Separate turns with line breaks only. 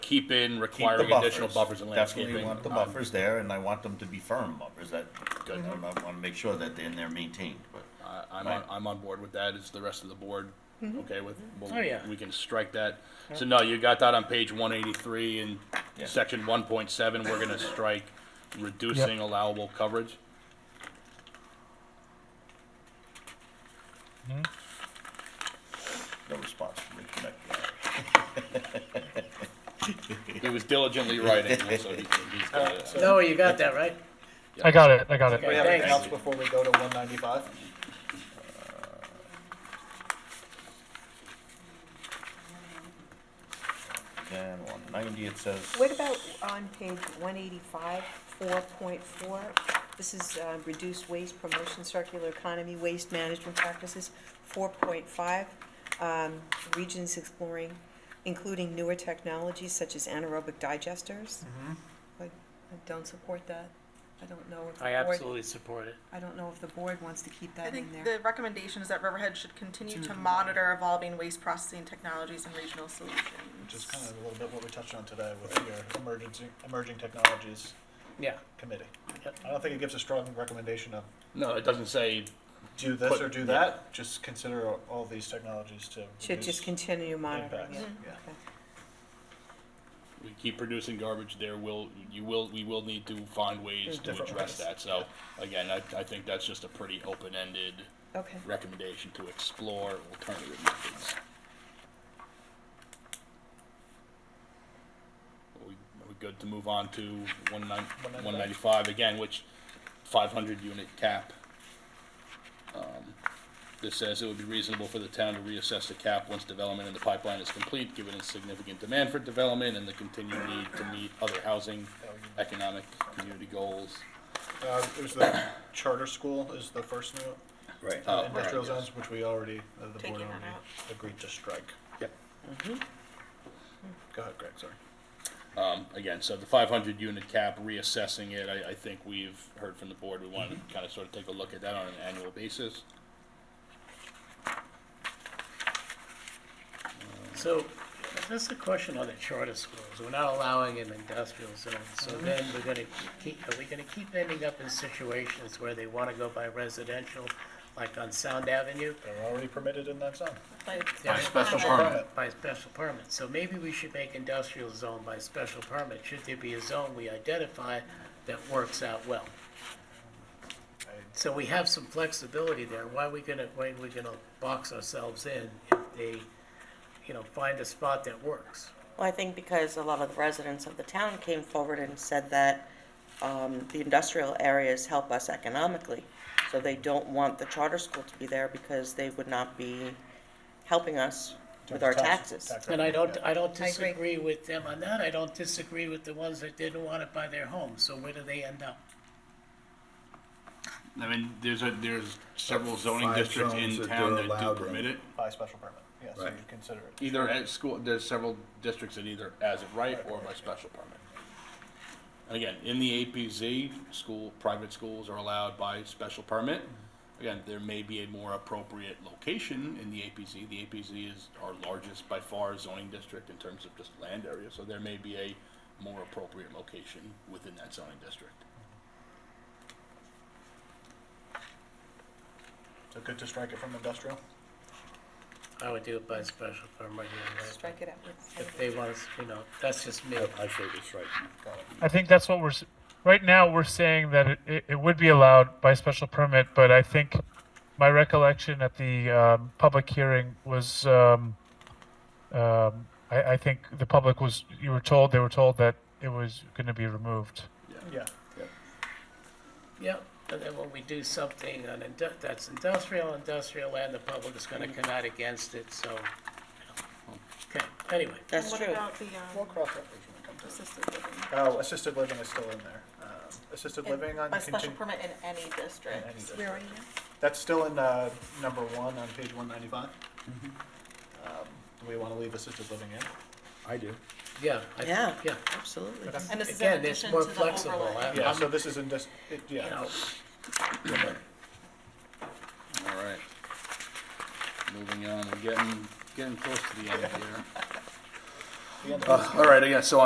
keep in
Keep the
requiring additional buffers and
Definitely
landscaping. Um,
want the
on-
buffers there, and I want them to be firm buffers, that, I
Mm-hmm.
wanna make sure that they're, they're maintained, but.
I- Uh, I'm,
Right.
on, I'm on board with that. Is the rest of the board okay with? Well,
Oh, yeah.
We can strike that. So no, you got that on page 183 in
Yeah.
section 1.7. We're gonna strike reducing allowable coverage.
No response from Rich Connect.
He was diligently writing, so he, he's got it.
No, you got that, right?
I got it. I got it.
We have anything
Thanks.
else before we go to one ninety-five?
Then one ninety, it says.
What about on page one eighty-five, four point four? This is uh, reduce waste, promotion circular economy, waste management practices. Four point five, um, regions exploring, including newer technologies such as anaerobic digesters. I I don't support that. I don't know if the
I
board.
absolutely support it.
I don't know if the board wants to keep
I
that in
think
there.
the recommendation is that Riverhead should continue to monitor evolving waste processing technologies and regional solutions.
Which is kind of a little bit what we touched on today with your emergency, emerging technologies
Yeah.
committee.
Yep.
I don't think it gives a strong recommendation of
No, it doesn't say
do this
Put-
or do that, just consider all- all these technologies to
Should
reduce
just continue monitoring
impacts.
it.
Yeah.
we keep producing garbage there will you will we will need to find ways to
Different
address
ways.
that so again I, I think that's just a pretty open-ended
Okay,
recommendation to explore alternative methods are we, are we good to move on to 19
195?
195 again which 500 unit cap um, this says it would be reasonable for the town to reassess the cap once development in the pipeline is complete, given its significant demand for development and the continued need to meet other housing, economic, community goals.
Uh, there's the charter school is the first note,
Right.
Oh,
uh, industrial
right, yes.
zones, which we already, uh, the board
Taking that
already
out.
agreed to strike.
Yep.
Go ahead, Greg, sorry.
Um, again, so the five hundred unit cap, reassessing it, I, I think we've heard from the board, we want to kind of sort of take a look at that on an annual basis.
So, that's the question on the charter schools. We're not allowing in industrial zones, so then we're gonna keep, are we gonna keep ending up in situations where they wanna go by residential, like on Sound Avenue?
They're already permitted in that zone.
Like,
By
Special permit.
By special permit. So maybe we should make industrial zone by special permit. Should there be a zone we identify that works out well? So we have some flexibility there. Why are we gonna, why are we gonna box ourselves in if they, you know, find a spot that works?
Well, I think because a lot of the residents of the town came forward and said that um, the industrial areas help us economically. So they don't want the charter school to be there because they would not be helping us with our taxes.
Tax-
And I don't, I don't
I agree.
disagree with them on that. I don't disagree with the ones that didn't want it by their home. So where do they end up?
I mean, there's a, there's several zoning
Five
districts in
zones that
town
they're
that do
allowed in.
permit it.
By special permit, yeah, so
Right.
you consider it.
Either at school, there's several districts that either as of right or by special permit. And again, in the APZ, school, private schools are allowed by special permit. Again, there may be a more appropriate location in the APZ. The APZ is our largest by far zoning district in terms of just land area, so there may be a more appropriate location within that zoning district.
So good to strike it from industrial?
I would do it by special permit. anyway.
strike it out.
If they want, us, you know, that's just me.
I think it's right.
I think that's what we're s- right now. We're saying that it, it, it would be allowed by special permit, but I think my recollection at the um, public hearing was um, um, I, I think the public was you were told they were told that it was going to be removed.
Yeah.
Yeah, and then when we do something on indu- that's industrial, industrial land, the public is gonna come out against it, so. you know. Okay, anyway,
That's
What
true.
about the,
We'll
um,
cross that bridge when we come to it.
assisted living?
Oh, assisted living is still in there. Um, Assisted living on
By special
contin-
permit in any district.
any district.
Where are you?
that's still in, uh, number one on page one ninety-five.
Mm-hmm.
Um, Do we wanna leave assisted living in?
I do.
yeah, I,
Yeah,
yeah.
absolutely.
And this is in
Again, it's
addition
more
to the
flexible.
overlay.
I-
Yeah,
I'm,
so this is in dis- it-
you
yeah.
know,
All right. Moving on, we're getting, getting close to the end here.
The end of
Uh, all right, again, so